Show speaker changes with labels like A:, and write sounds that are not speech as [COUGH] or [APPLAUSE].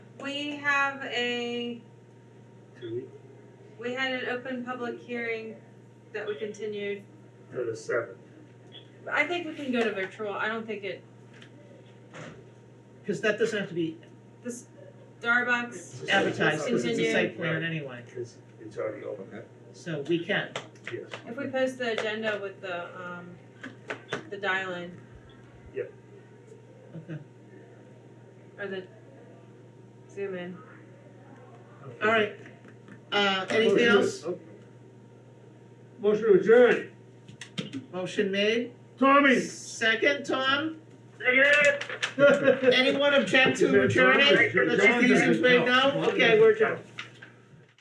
A: we have a,
B: Two weeks
A: we had an open public hearing that we continued.
B: for the seventh.
A: I think we can go to virtual, I don't think it,
C: Because that doesn't have to be
A: this Starbucks,
C: advertised, because it's a
A: Continue.
C: site plan anyway,
B: Because it's already open, huh?
C: so we can.
B: Yes.
A: if we post the agenda with the, um, the dial-in
C: Okay,
A: or the Zoom in.
C: all right. Uh, anything else?
D: Motion to adjourn.
C: Motion made,
D: Tommy.
C: second, Tom?
D: Anyone
C: [LAUGHS] Anyone object to adjourning? Let's see if these things made no, okay, we're adjourned.